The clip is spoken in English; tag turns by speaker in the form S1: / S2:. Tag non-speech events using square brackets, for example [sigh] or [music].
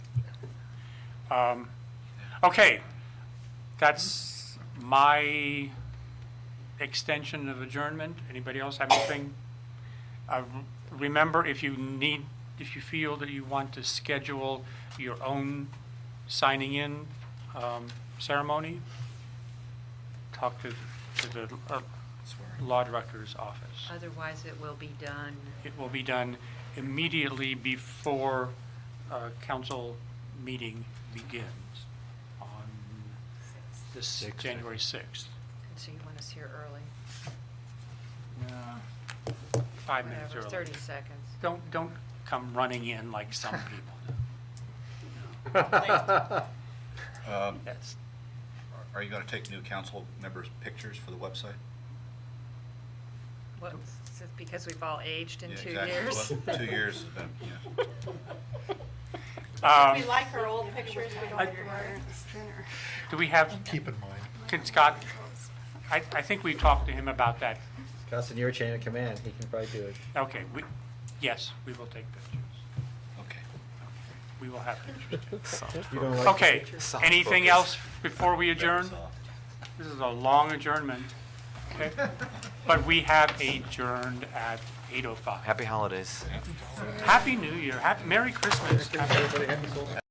S1: Um, Okay, that's my extension of adjournment. Anybody else have anything? Uh, Remember, if you need, if you feel that you want to schedule your own signing in um, ceremony, talk to to the uh, law director's office.
S2: Otherwise, it will be done.
S1: It will be done immediately before uh, council meeting begins on this
S3: Sixth.
S1: January 6th.
S2: So you want us here early?
S1: Five minutes
S2: Whatever,
S1: early.
S2: 30 seconds.
S1: Don't, don't come running in like some people.
S4: Um,
S1: That's,
S4: Are you going to take new council members' pictures for the website?
S2: What, s- because we've all aged in
S4: Yeah,
S2: two
S4: exactly.
S2: years?
S5: [laughs]
S4: Well, Two years, has been- yeah.
S2: [laughs]
S5: We
S1: Um,
S5: like her old pictures, we don't
S1: I-
S5: have to worry.
S1: do we have,
S6: Keep in mind.
S1: can Scott, I, I think we talked to him about that.
S3: Scott's in your chain of command, he can probably do it.
S1: Okay, we, yes, we will take pictures.
S4: Okay.
S1: We will have pictures.
S3: You don't like-
S1: Okay, anything else before we adjourn?
S4: That's all.
S1: This is a long adjournment, okay? But we have adjourned at 8:05.
S7: Happy holidays.
S1: Happy New Year, happy, Merry Christmas. Happy-